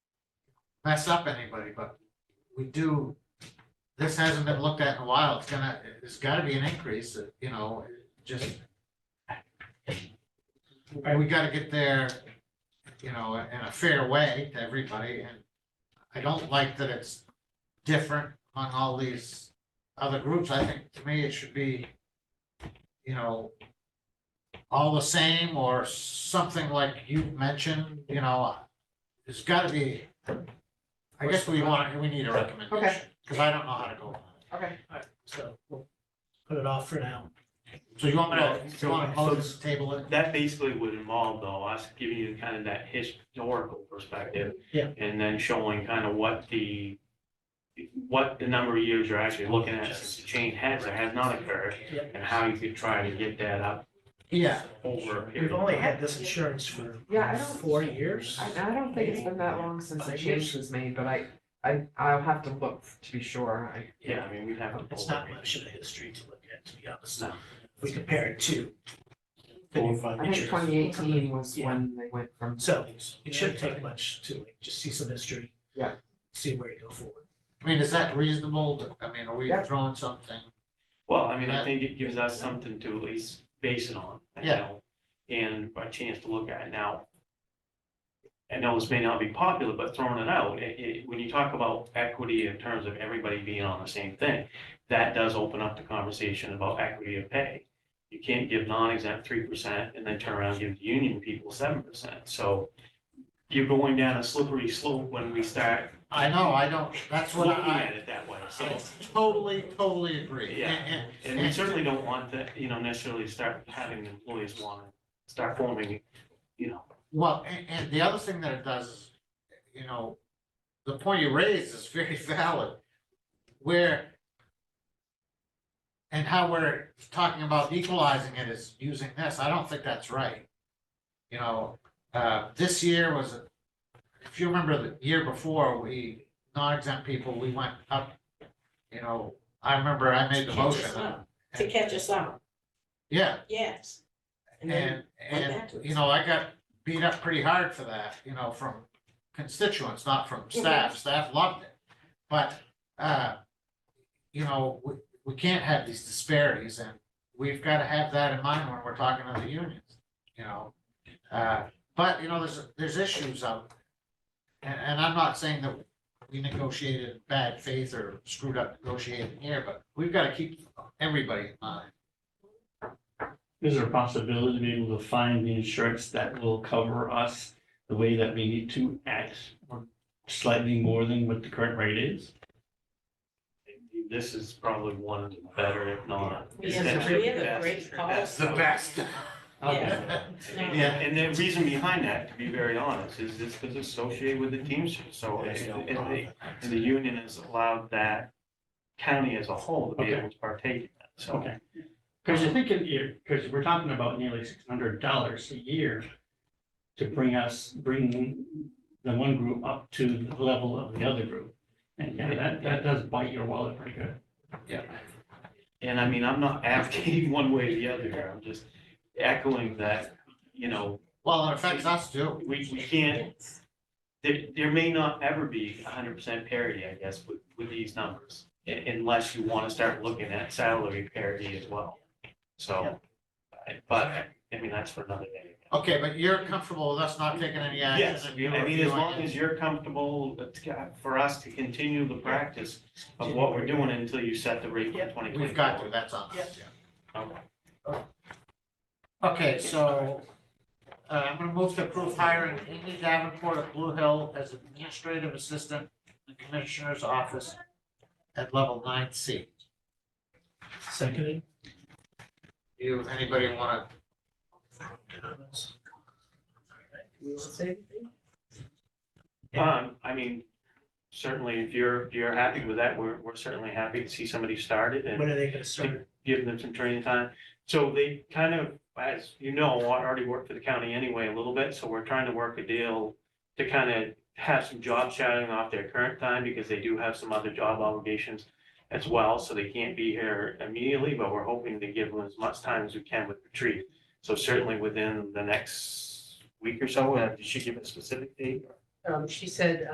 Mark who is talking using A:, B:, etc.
A: mess up anybody, but we do, this hasn't been looked at in a while. It's gonna, there's gotta be an increase, you know, just. We gotta get there, you know, in a fair way to everybody, and I don't like that it's different among all these other groups. I think to me it should be, you know, all the same or something like you mentioned, you know, there's gotta be, I guess we want, we need a recommendation, because I don't know how to go. about it.
B: Okay,
C: so we'll put it off for now.
A: So you want me to, you want to
D: So-
A: close the table it?
D: That basically would involve though, us giving you kind of that historical perspective.
C: Yeah.
D: And then showing kind of what the, what the number of years you're actually looking at since the change has or has not occurred.
C: Yeah.
D: And how you could try to get that up
A: Yeah,
D: over a period.
C: We've only had this insurance for
B: Yeah, I don't-
C: four years.
B: I, I don't think it's been that long since the change was made, but I, I, I'll have to look to be sure, I,
D: Yeah, I mean, we'd have. to
C: It's
D: pull
C: not
D: it.
C: much of a history to look at, to be honest.
D: No.
C: If we compare it to the new fund.
B: I think
C: insurance.
B: twenty eighteen was when they went from.
C: So it shouldn't take much to like, just see some history.
B: Yeah.
C: See where you go forward.
A: I mean, is that reasonable? I mean, are we
B: Yeah.
A: throwing something?
D: Well, I mean, I think it gives us something to at least base it on. you
A: Yeah.
D: know, And a chance to look at it now. I know this may not be popular, but throwing it out, it, it, when you talk about equity in terms of everybody being on the same thing, that does open up the conversation about equity of pay. You can't give non-exempt three percent and then turn around and give the union people seven percent. So you're going down a slippery slope when we start
A: I know, I don't, that's what
D: looking
A: I,
D: at it that way, so.
A: I totally, totally agree.
D: Yeah.
A: And- and-
D: And we certainly don't want that, you know, necessarily start having employees want to start forming, you know,
A: Well, and, and the other thing that it does is, you know, the point you raised is very valid, where and how we're talking about equalizing it is using this, I don't think that's right. You know, uh, this year was, if you remember the year before, we, non-exempt people, we went up, you know, I remember I made the
E: Catch
A: motion.
E: us up, to catch us up,
A: Yeah,
E: yes. And then,
A: and,
E: went
A: and,
E: back to it.
A: you know, I got beat up pretty hard for that, you know, from constituents, not from
E: Mm-hmm.
A: staff. Staff loved it. But, uh, you know, we, we can't have these disparities and we've got to have that in mind when we're talking to the unions, you know? Uh, but, you know, there's, there's issues out. And, and I'm not saying that we negotiated in bad faith or screwed up negotiating here, but we've got to keep everybody in mind.
F: Is there a possibility to be able to find the insurance that will cover us the way that we need to at or slightly more than what the current rate is?
D: this is probably one of the better, if not.
E: We have a- we have a great
D: That's the
E: policy.
D: best.
E: Yeah.
D: And and the reason behind that, to be very honest, is this because it's associated with the Teamsters, so it- it- it- and the union has allowed that county as a whole to be able to partake in that, so.
F: Okay. Because you're thinking, you're, because we're talking about nearly six hundred dollars a year to bring us, bring the one group up to the level of the other group. And yeah, that, that does bite your wallet pretty good.
D: And I mean, I'm not advocating one way or the other here, I'm just echoing that, you know,
A: Well, it affects us too.
D: we, we can't, there, there may not ever be hundred percent parity, I guess, with, with these numbers. u- Unless you want to start looking at salary parity as well. So, I- but, I mean, that's for another day.
A: Okay, but you're comfortable with us not taking any action?
D: Yes,
A: and you
D: I mean, as
A: reviewing
D: long
A: it?
D: as you're comfortable uh, to- for us to continue the practice of what we're doing until you set the rate for twenty
A: We've got to, that's on us,
D: Okay.
A: yeah. Okay, so, uh, I'm gonna move to approve hiring Amy Davenport of Blue Hill as administrative assistant in the commissioner's office at level nine C.
C: Seconded.
A: Do you, anybody wanna,
C: comments?
E: We will say anything?
D: Um, I mean, certainly if you're, if you're happy with that, we're, we're certainly happy to see somebody started and
C: When are they gonna start?
D: give them some training time. So they kind of, as you know, I already work for the county anyway a little bit, so we're trying to work a deal to kind of have some job shadowing off their current time because they do have some other job obligations as well, so they can't be here immediately, but we're hoping to give them as much time as we can with retreat. So certainly within the next week or so, uh, did she give a specific date?
E: Um, she said,